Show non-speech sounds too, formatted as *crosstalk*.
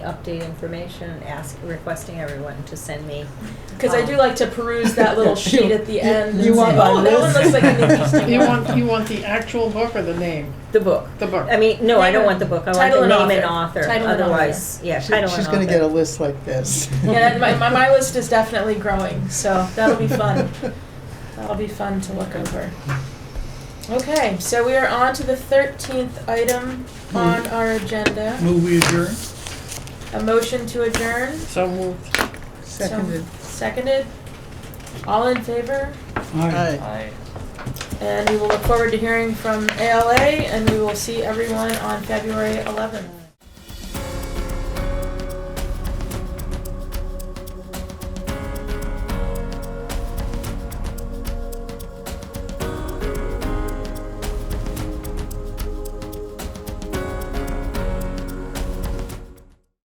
update information, ask, requesting everyone to send me. Because I do like to peruse *laughs* that little sheet at the end. you and want say, my oh, that one list?" *laughs* looks like an interesting You one. want, you want the actual book or the name? the book. The book. I mean, no, I don't want the book, I want Title the and name and author. author, Title and author. otherwise, yeah, She- title and author. She's gonna get a list like this. *laughs* Yeah, my, my, my list is definitely growing, so that'll be *laughs* fun. *laughs* That'll be fun to look over. Okay, so we are on to the 13th item on Hmm. our agenda Move we adjourn? a motion to adjourn. So moved. So, Seconded. seconded. All in favor? Aye. Aye. And we will look forward to hearing from ALA, and we will see everyone on February 11th.